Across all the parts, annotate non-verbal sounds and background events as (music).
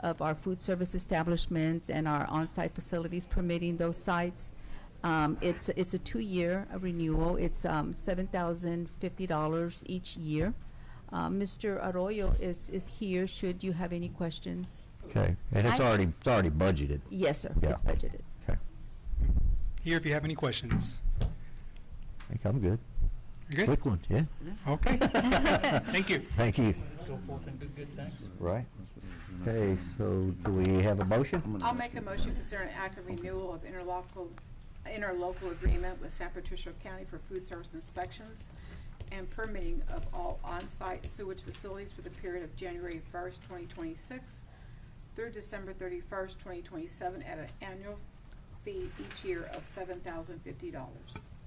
of our food service establishments and our on-site facilities permitting those sites. Um, It's, it's a two-year renewal. It's um, $7,050 each year. Uh, Mr. Arroyo is, is here, should you have any questions. Okay, and it's I- already, it's already budgeted. Yes, sir, it's Yeah. budgeted. Okay, Here if you have any questions. I think I'm good. You're good? Quick one, yeah. (laughs) (laughs) Okay. Thank you. Thank you. Go forth and do good things. Right. Okay, so do we have a motion? I'll make a motion considering act of renewal of interlocal, interlocal agreement with San Patricio County for food service inspections and permitting of all on-site sewage facilities for the period of January 1st, 2026 through December 31st, 2027 at an annual fee each year of $7,050.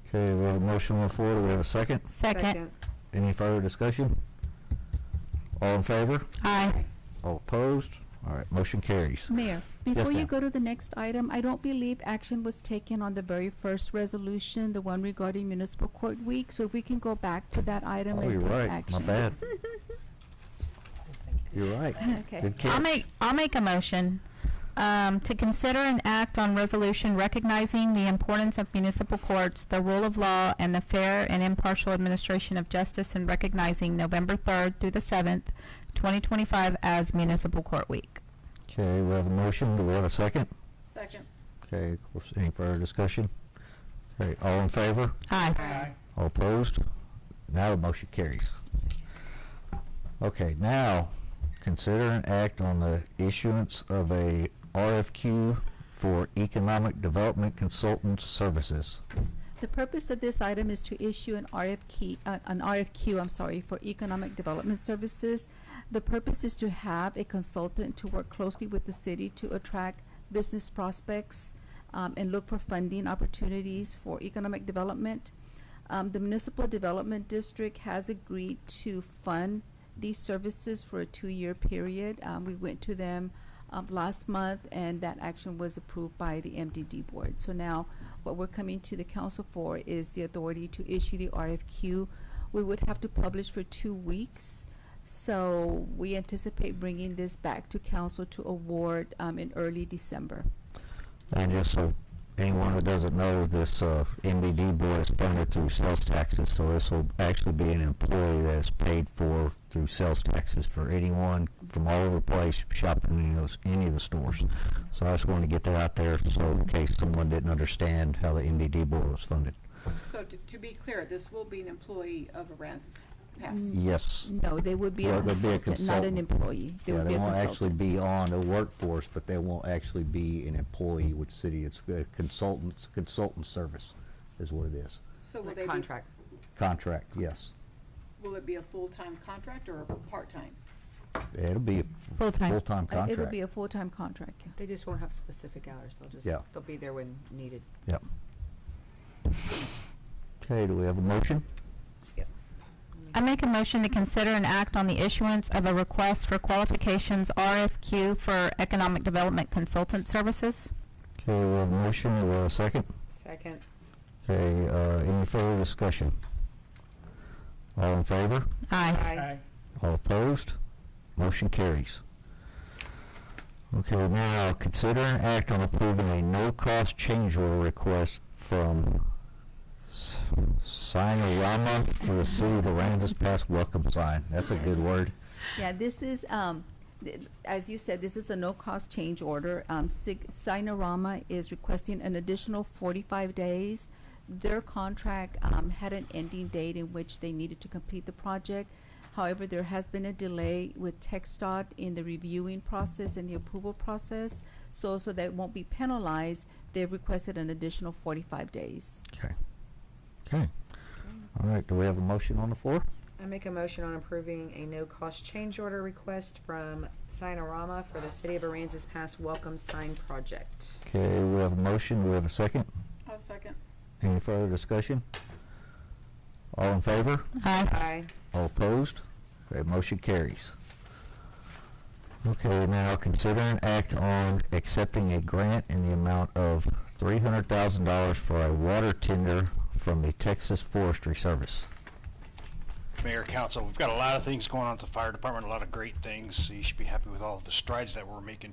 Okay, we have a motion on the floor, do we have a second? Second. Any further discussion? All in favor? Aye. All opposed? All right, motion carries. Mayor, before you ma'am. go to the next item, I don't believe action was taken on the very first resolution, the one regarding municipal court week. So if we can go back to that item Oh, you're and take right, action. my bad. You're right. (laughs) Okay. Good I'll catch. make, I'll make a motion um, to consider an act on resolution recognizing the importance of municipal courts, the rule of law, and the fair and impartial administration of justice, and recognizing November 3rd through the 7th, 2025 as Municipal Court Week. Okay, we have a motion, do we have a second? Second. Okay, of course, any further discussion? Okay, all in favor? Aye. Aye. All opposed? Now the motion carries. Okay, now, consider an act on the issuance of a RFQ for Economic Development Consultant Services. The purpose of this item is to issue an RFQ, uh, an RFQ, I'm sorry, for economic development services. The purpose is to have a consultant to work closely with the city to attract business prospects um, and look for funding opportunities for economic development. Um, The Municipal Development District has agreed to fund these services for a two-year period. Um, We went to them um, last month, and that action was approved by the MDD Board. So now, what we're coming to the council for is the authority to issue the RFQ. We would have to publish for two weeks, so we anticipate bringing this back to council to award um, in early December. And just so anyone that doesn't know, this uh, MBD board is funded through sales taxes, so this will actually be an employee that's paid for through sales taxes for anyone from all over the place shopping in those, any of the stores. So I just wanted to get that out there, so in case someone didn't understand how the MBD board was funded. So to, to be clear, this will be an employee of Aransas Mm. Pass. Yes. No, they would be a Well, they'd be a consultant, not an consultant. employee. They Yeah, would they be a won't actually consultant. be on the workforce, but they won't actually be an employee with city. It's a consultants, consultant service is what it is. So will Like they be, contract. Contract, yes. will it be a full-time contract or a part-time? It'll be a Full-time. full-time Uh, It would be contract. a full-time contract. They just won't have specific hours. They'll just, Yeah. they'll be there when needed. Yep. Okay, do we have a motion? I make a motion to consider an act on the issuance of a request for qualifications RFQ for Economic Development Consultant Services. Okay, we have a motion, we have a second. Second. Okay, uh, any further discussion? All in favor? Aye. Aye. All opposed? Motion carries. Okay, now, consider an act on approving a no-cost change order request from S- Sinorama for the City of Aransas Pass Welcome Sign. That's a good word. Yeah, this is, um, th- as you said, this is a no-cost change order. Um, Sig- Sinorama is requesting an additional 45 days. Their contract um, had an ending date in which they needed to complete the project. However, there has been a delay with TechStot in the reviewing process and the approval process. So, so they won't be penalized, they've requested an additional 45 days. Okay. Okay. All right, do we have a motion on the floor? I make a motion on approving a no-cost change order request from Sinorama for the City of Aransas Pass Welcome Sign Project. Okay, we have a motion, we have a second. I'll second. Any further discussion? All in favor? Aye. Aye. All opposed? Okay, motion carries. Okay, now consider an act on accepting a grant in the amount of three hundred thousand dollars for a water tender from the Texas Forestry Service. Mayor, Council, we've got a lot of things going on at the fire department, a lot of great things. You should be happy with all of the strides that we're making